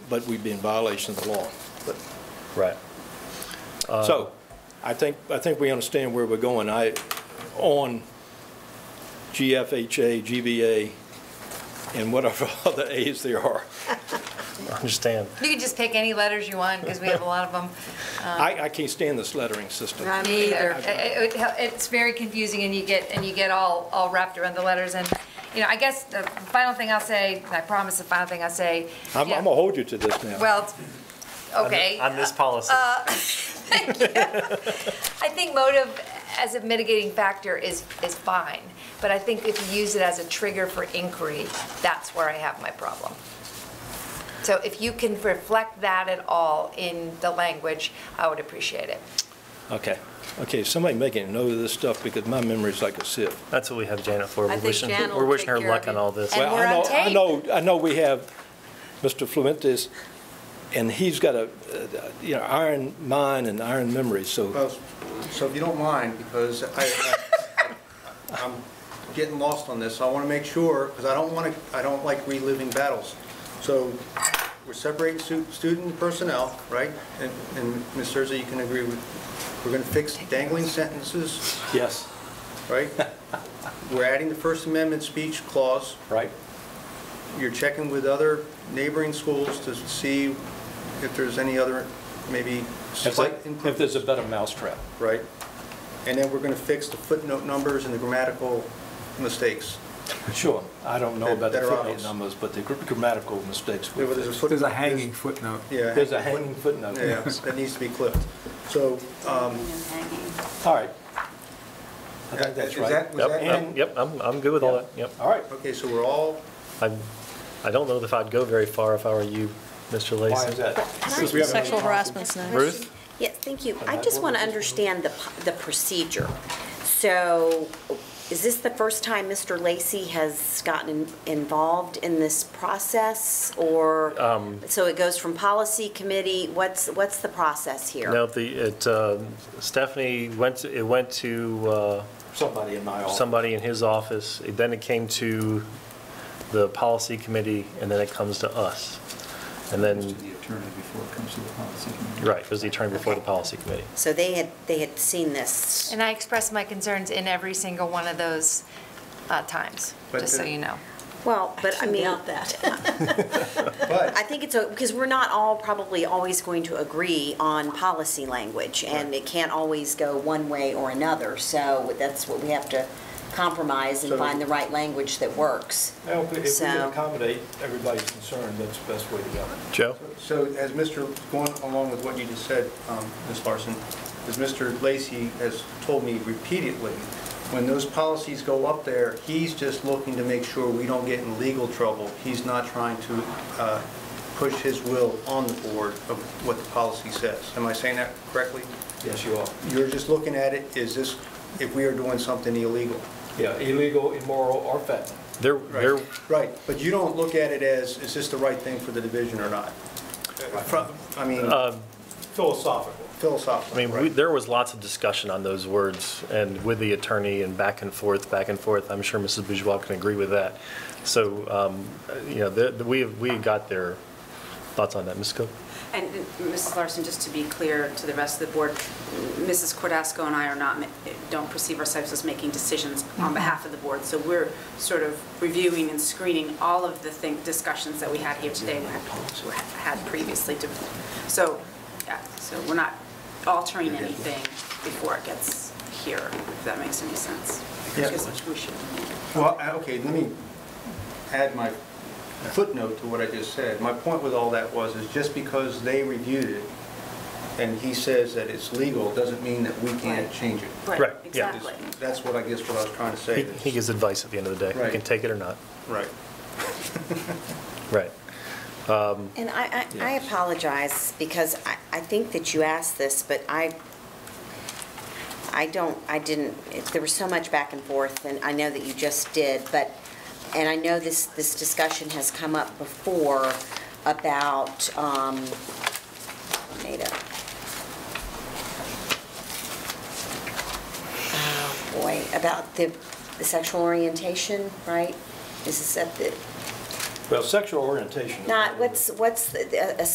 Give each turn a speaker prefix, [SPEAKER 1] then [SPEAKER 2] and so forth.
[SPEAKER 1] but we'd be in violation of the law. But
[SPEAKER 2] Right.
[SPEAKER 1] So, I think, I think we understand where we're going. I, on GFHA, GBA, and whatever other As there are,
[SPEAKER 2] I Understand.
[SPEAKER 3] You can just pick any letters you want, because we have a lot of them. Uh.
[SPEAKER 1] I, I can't stand this lettering system.
[SPEAKER 3] Me either. It- it- It's very confusing, and you get, and you get all, all wrapped around the letters, and, you know, I guess the final thing I'll say, I promise the final thing I'll say.
[SPEAKER 1] I'm, I'm
[SPEAKER 3] yeah,
[SPEAKER 1] gonna hold you to this now.
[SPEAKER 3] Well, it's- okay.
[SPEAKER 2] On this policy.
[SPEAKER 4] Uh,
[SPEAKER 3] I think motive as a mitigating factor is, is fine, but I think if you use it as a trigger for inquiry, that's where I have my problem. So if you can reflect that at all in the language, I would appreciate it.
[SPEAKER 1] Okay, okay, somebody making a note of this stuff because my memory's like a sieve.
[SPEAKER 2] That's what we have Janet for. We're
[SPEAKER 4] think
[SPEAKER 2] wishing,
[SPEAKER 4] Jan will
[SPEAKER 2] we're wishing
[SPEAKER 4] take
[SPEAKER 2] her
[SPEAKER 4] care
[SPEAKER 2] luck
[SPEAKER 4] of
[SPEAKER 2] on
[SPEAKER 4] it.
[SPEAKER 2] all this.
[SPEAKER 3] And-
[SPEAKER 1] Well,
[SPEAKER 3] we're
[SPEAKER 1] I
[SPEAKER 3] on
[SPEAKER 1] know, I
[SPEAKER 3] tape.
[SPEAKER 1] know, I know we have Mr. Fluentes, and he's got a, uh, you know, iron mind and iron memory, so,
[SPEAKER 5] Well, so if you don't mind, because I, I- I'm getting lost on this, I want to make sure, because I don't want to, I don't like reliving battles. So we're separating stu- student personnel, right? And, and Ms. Cersey, you can agree with, we're going to fix dangling sentences,
[SPEAKER 1] yes,
[SPEAKER 5] right? We're adding the First Amendment speech clause.
[SPEAKER 1] right?
[SPEAKER 5] You're checking with other neighboring schools to see if there's any other, maybe
[SPEAKER 1] If
[SPEAKER 5] slight
[SPEAKER 1] there- if
[SPEAKER 5] improvement.
[SPEAKER 1] there's a better mousetrap.
[SPEAKER 5] right? And then we're going to fix the footnote numbers and the grammatical mistakes.
[SPEAKER 1] Sure, I don't know
[SPEAKER 5] That-
[SPEAKER 1] about the
[SPEAKER 5] that are
[SPEAKER 1] footnote
[SPEAKER 5] obvious.
[SPEAKER 1] numbers, but the gr- grammatical mistakes. we
[SPEAKER 5] There was
[SPEAKER 1] fixed.
[SPEAKER 5] footnote-
[SPEAKER 6] There's a hanging footnote.
[SPEAKER 5] Yeah.
[SPEAKER 1] There's a hanging footnote.
[SPEAKER 5] Yeah, that needs to be clipped. So, um,
[SPEAKER 1] All right. I think
[SPEAKER 5] is
[SPEAKER 1] that's right.
[SPEAKER 5] that, was
[SPEAKER 2] Yep,
[SPEAKER 5] that
[SPEAKER 2] yep,
[SPEAKER 5] in?
[SPEAKER 2] yep, I'm, I'm good with all that, yep.
[SPEAKER 1] All right.
[SPEAKER 5] Okay, so we're all,
[SPEAKER 2] I'm, I don't know if I'd go very far if I were you, Mr. Lacy.
[SPEAKER 1] Why is that?
[SPEAKER 4] Can I
[SPEAKER 1] Since
[SPEAKER 4] ask
[SPEAKER 1] we haven't had
[SPEAKER 4] a
[SPEAKER 1] a
[SPEAKER 4] sexual
[SPEAKER 1] conference.
[SPEAKER 4] harassment now?
[SPEAKER 2] Ruth?
[SPEAKER 7] Yes, thank you. I just want to understand the, p- the procedure. So is this the first time Mr. Lacy has gotten in- involved in this process? Or, so it goes from policy committee, what's, what's the process here?
[SPEAKER 2] No, the, it, uh, Stephanie went, to- it went to, uh,
[SPEAKER 1] Somebody in my office.
[SPEAKER 2] somebody in his office, it- then it came to the policy committee, and then it comes to us. And
[SPEAKER 6] Goes
[SPEAKER 2] then,
[SPEAKER 6] to the attorney before it comes to the policy committee.
[SPEAKER 2] right, it was the attorney before the policy committee.
[SPEAKER 7] So they had, they had seen this.
[SPEAKER 3] And I expressed my concerns in every single one of those uh, times,
[SPEAKER 5] But
[SPEAKER 3] just so
[SPEAKER 5] the-
[SPEAKER 3] you know.
[SPEAKER 7] Well, but I mean.
[SPEAKER 4] that.
[SPEAKER 7] I
[SPEAKER 5] but,
[SPEAKER 7] think it's, a- because we're not all probably always going to agree on policy language, and it can't always go one way or another, so that's what we have to compromise and
[SPEAKER 5] So-
[SPEAKER 7] find the right language that works.
[SPEAKER 1] Well, If we if we can
[SPEAKER 7] So-
[SPEAKER 1] accommodate everybody's concern, that's the best way to go.
[SPEAKER 2] Joe?
[SPEAKER 5] so as Mr., going along with what you just said, um, Ms. Larson, as Mr. Lacy has told me repeatedly, when those policies go up there, he's just looking to make sure we don't get in legal trouble. He's not trying to uh, push his will on the board of what the policy says. Am I saying that correctly?
[SPEAKER 1] Yes, you are.
[SPEAKER 5] You're just looking at it, is this, if we are doing something illegal?
[SPEAKER 1] Yeah, illegal, immoral, or fentanyl.
[SPEAKER 2] There, there,
[SPEAKER 5] Right, but you don't look at it as, is this the right thing for the division or not? From- I mean,
[SPEAKER 1] Philosophical.
[SPEAKER 2] Uh, I
[SPEAKER 5] philosophically,
[SPEAKER 2] mean, we-
[SPEAKER 5] right?
[SPEAKER 2] there was lots of discussion on those words, and with the attorney, and back and forth, back and forth. I'm sure Mrs. Bourgeois can agree with that. So, um, you know, the- the- we, we got their thoughts on that, Ms. Cook?
[SPEAKER 4] And Mrs. Larson, just to be clear to the rest of the board, Mrs. Cordasco and I are not, ma- don't perceive ourselves as making decisions on behalf of the board. So we're sort of reviewing and screening all of the thing, discussions that we had here today, we had- had previously. to- So, yeah, so we're not altering anything before it gets here, if that makes any sense.
[SPEAKER 5] Yeah.
[SPEAKER 4] Because we should.
[SPEAKER 5] Well, I- okay, let me add my footnote to what I just said. My point with all that was, is just because they reviewed it and he says that it's legal, doesn't mean that we can't change it.
[SPEAKER 2] Right, yeah.
[SPEAKER 4] Exactly.
[SPEAKER 5] That's what I guess what I was trying to say.
[SPEAKER 2] He he gives advice at the end of the day. You can
[SPEAKER 5] Right.
[SPEAKER 2] take it or not.
[SPEAKER 5] Right.
[SPEAKER 2] Right.
[SPEAKER 7] And I, I- I apologize, because I, I think that you asked this, but I, I don't, I didn't, it- there was so much back and forth, and I know that you just did, but, and I know this, this discussion has come up before about, um, data. Oh, boy, about the the sexual orientation, right? Is this at the,
[SPEAKER 1] Well, sexual orientation. is
[SPEAKER 7] Not,
[SPEAKER 1] one of the-
[SPEAKER 7] what's, what's, the- a a